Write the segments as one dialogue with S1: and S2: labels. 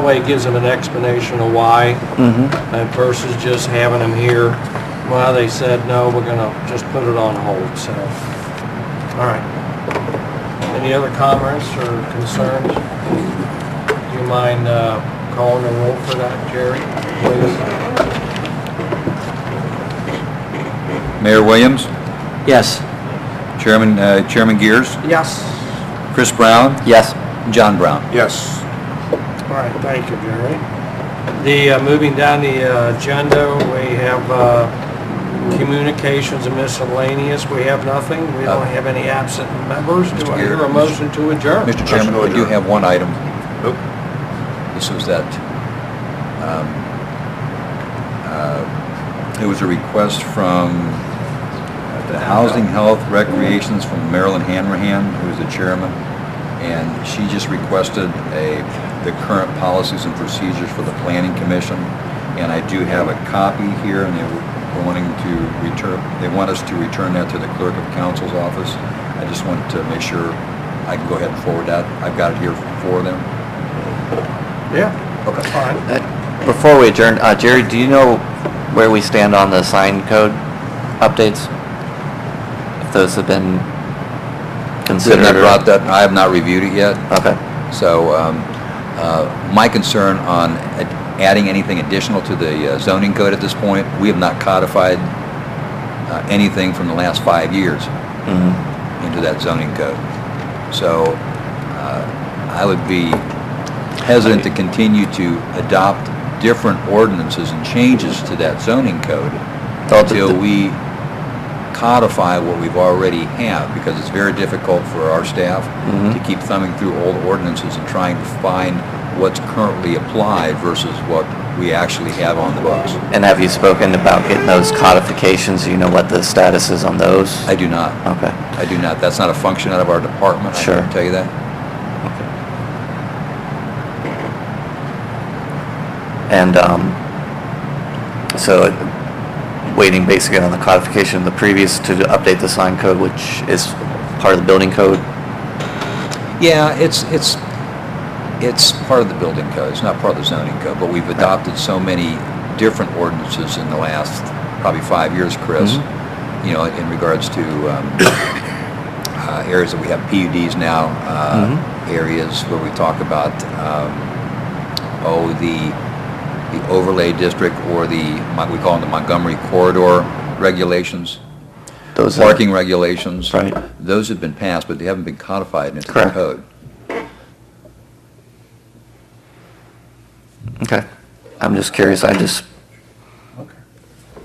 S1: That way it gives them an explanation of why, and versus just having them here, well, they said, no, we're gonna just put it on hold, so. All right. Any other comments or concerns? Do you mind uh, calling the roll for that, Jerry, please?
S2: Mayor Williams,
S3: Yes.
S2: Chairman, uh, Chairman Gears,
S1: Yes.
S2: Chris Brown,
S3: Yes.
S2: John Brown.
S4: Yes.
S1: All right, thank you, Jerry. The, uh, moving down the uh, agenda, we have uh, communications and miscellaneous. We have nothing. We
S2: Uh,
S1: don't have any absent members. Do I hear a motion to adjourn?
S2: Mr.
S4: Motion
S2: Chairman,
S4: to
S2: I do
S4: adjourn.
S2: have one item.
S4: Nope.
S2: This was that, um, uh, it was a request from the Housing Health Recreations from Marilyn Hanrahan, who is the chairman, and she just requested a, the current policies and procedures for the Planning Commission, and I do have a copy here, and they were wanting to return, they want us to return that to the Clerk of Council's office. I just wanted to make sure I can go ahead and forward that. I've got it here for them.
S1: Yeah,
S2: Okay.
S1: fine.
S3: Before we adjourn, uh, Jerry, do you know where we stand on the sign code updates? If those have been
S2: They
S3: considered?
S2: have
S3: or-
S2: brought that, I have not reviewed it yet,
S3: Okay.
S2: so um, uh, my concern on ad- adding anything additional to the uh, zoning code at this point, we have not codified uh, anything from the last five years
S3: Mhm.
S2: into that zoning code. So uh, I would be hesitant to continue to adopt different ordinances and changes to that zoning code
S3: Thought that
S2: until
S3: the-
S2: we codify what we've already have, because it's very difficult for our staff
S3: Mhm.
S2: to keep thumbing through old ordinances and trying to find what's currently applied versus what we actually have on the books.
S3: And have you spoken about getting those codifications? Do you know what the status is on those?
S2: I do not.
S3: Okay.
S2: I do not. That's not a function out of our department. I
S3: Sure.
S2: can tell you that.
S3: And um, so waiting basically on the codification of the previous to update the sign code, which is part of the building code?
S2: Yeah, it's, it's, it's part of the building code. It's not part of the zoning code, but we've adopted so many different ordinances in the last probably five years, Chris,
S3: Mhm.
S2: you know, in regards to um, uh, areas that we have PUDs now, uh,
S3: Mm-hmm.
S2: areas where we talk about, um, oh, the, the overlay district or the, we call them the Montgomery corridor regulations.
S3: Those are-
S2: parking regulations.
S3: Right.
S2: Those have been passed, but they haven't been codified into the
S3: Correct.
S2: code.
S3: Okay. I'm just curious, I just,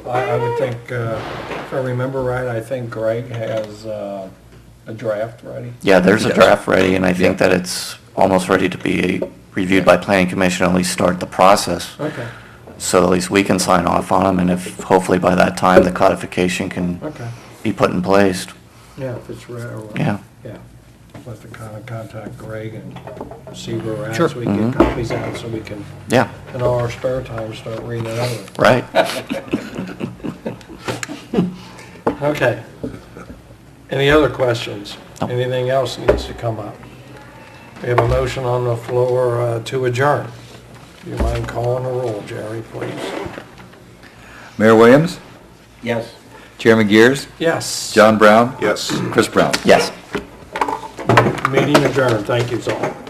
S1: I I would think, uh, if I remember right, I think Greg has uh, a draft ready.
S3: yeah, there's a
S2: Yes.
S3: draft ready, and I think
S2: Yeah.
S3: that it's almost ready to be reviewed by planning commission, at least start the process.
S1: Okay,
S3: So at least we can sign off on them, and if, hopefully by that time, the codification can
S1: okay.
S3: be put in place.
S1: Yeah, if it's ready. or-
S3: Yeah.
S1: Yeah. Let the con- contact Greg and see where we're at.
S2: Sure.
S1: So we can
S3: Mhm.
S1: get copies out so we can,
S3: Yeah,
S1: in all our spare time, start reading it over.
S3: right.
S1: Okay. Any other questions?
S3: No.
S1: Anything else needs to come up? We have a motion on the floor uh, to adjourn. Do you mind calling the roll, Jerry, please?
S2: Mayor Williams?
S1: Yes.
S2: Chairman Gears?
S1: Yes.
S2: John Brown?
S4: Yes.
S2: Chris Brown?
S3: Yes.
S1: Meeting adjourned. Thank you, all.